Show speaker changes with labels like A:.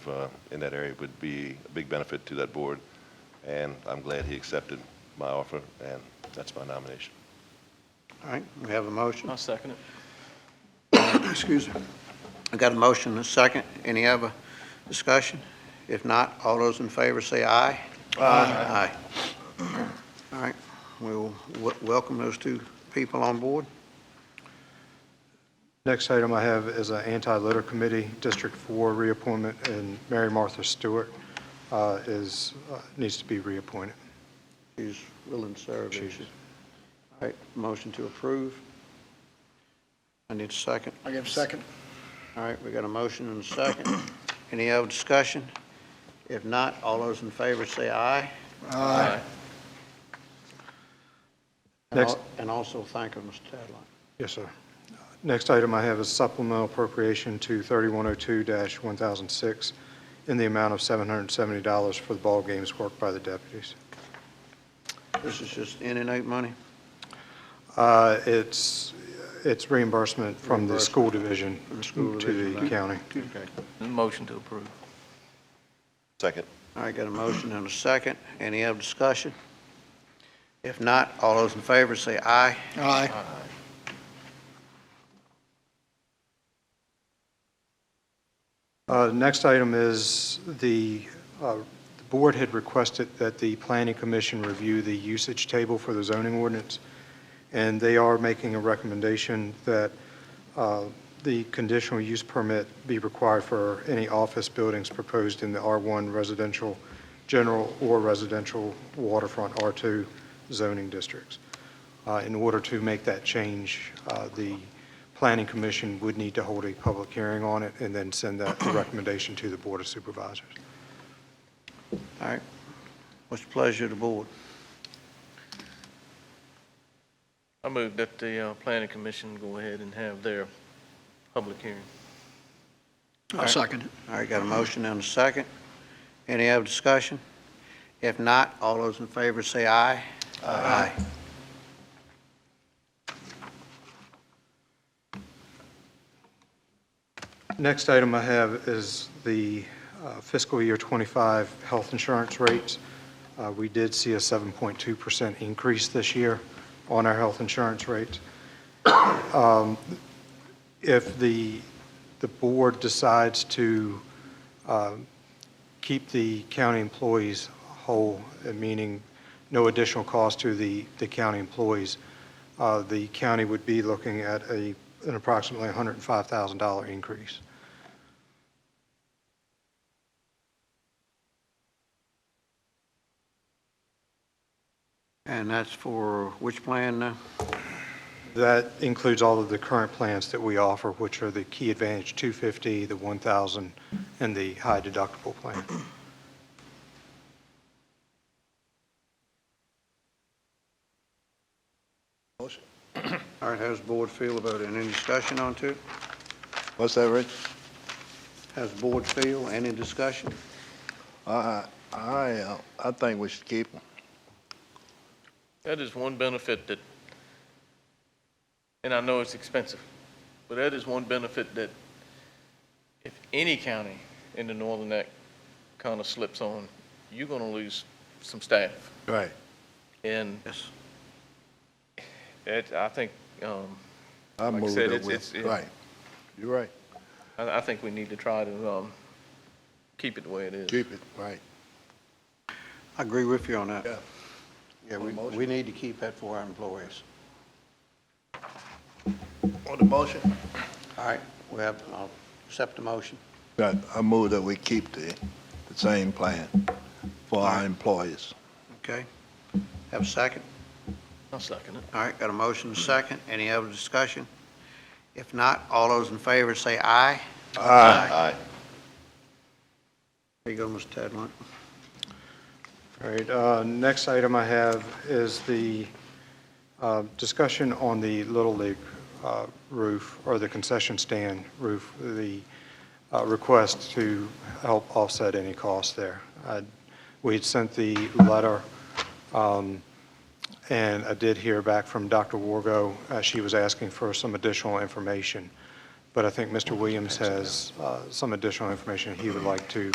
A: uh, in that area would be a big benefit to that board, and I'm glad he accepted my offer, and that's my nomination.
B: All right, we have a motion.
C: I'll second it.
B: Oh, Excuse me. I got a motion and a second. Any other discussion? If not, all those in favor say aye. Aye. Aye. All right, we'll w- welcome those two people on board.
D: Next item I have is an anti-litter committee, District 4 reappointment, and Mary Martha Stewart uh, is, uh, needs to be reappointed.
B: She's willing to serve. isn't she? All right, motion to approve. I need a second.
E: I give a second.
B: All right, we got a motion and a second. Any other discussion? If not, all those in favor say aye.
C: Aye.
B: And
D: Next.
B: al- And also thank her, Mr. Tadlock.
D: Yes, sir. Next item I have is supplemental appropriation to 3102-1006 in the amount of $770 for the ball games worked by the deputies.
B: This is just in and out money?
D: Uh, It's, it's reimbursement from the school division
B: From the school
D: to
B: division,
D: the
B: right.
D: county.
B: Okay.
C: Motion to approve.
A: Second.
B: All right, got a motion and a second. Any other discussion? If not, all those in favor say aye.
E: Aye.
D: Uh, Next item is the, uh, the board had requested that the planning commission review the usage table for the zoning ordinance, and they are making a recommendation that uh, the conditional use permit be required for any office buildings proposed in the R1 residential, general or residential waterfront R2 zoning districts. Uh, In order to make that change, uh, the Planning Commission would need to hold a public hearing on it and then send that recommendation to the Board of Supervisors.
B: All right. What's the pleasure of the board?
C: I move that the uh, planning commission go ahead and have their public hearing.
E: I second it.
B: All right, got a motion and a second. Any other discussion? If not, all those in favor say aye. Aye.
D: Next item I have is the uh, fiscal year '25 health insurance rates. Uh, We did see a 7.2% increase this year on our health insurance rates. Um, If the, the board decides to um, keep the county employees whole, uh, meaning no additional cost to the, the county employees, uh, the county would be looking at a, an approximately $105,000 increase.
B: And that's for which plan now?
D: That includes all of the current plans that we offer, which are the Key Advantage 250, the 1,000, and the high deductible plan.
B: All right, how's the board feel about it? Any discussion on to it?
F: What's that, Rich?
B: How's the board feel? Any discussion?
F: I, I, uh, I think we should keep them.
C: That is one benefit that, and I know it's expensive, but that is one benefit that if any county in the northern neck kind of slips on, you're going to lose some staff.
F: Right.
C: And
B: Yes.
C: it, I think, um,
F: I
C: Like I
F: move
C: said,
F: that
C: it's- it's-
F: we,
C: it-
F: right. You're right.
C: I, I think we need to try to, um, keep it the way it is.
F: Keep it, right.
B: I agree with you on that.
F: Yeah.
B: Yeah, we,
F: Motion.
B: we need to keep that for our employees.
F: On the motion?
B: All right, we have, I'll accept the motion.
F: Right, I move that we keep the, the same plan for our employees.
B: Okay. Have a second?
C: I'll second it.
B: All right, got a motion and a second. Any other discussion? If not, all those in favor say aye.
A: Aye.
B: There you go, Mr. Tadlock.
D: All right, uh, next item I have is the uh, discussion on the Little League uh, roof, or the concession stand roof, the uh, request to help offset any costs there. I- We had sent the letter, um, and I did hear back from Dr. Wargo. Uh, She was asking for some additional information, but I think Mr. Williams has uh, some additional information he would like to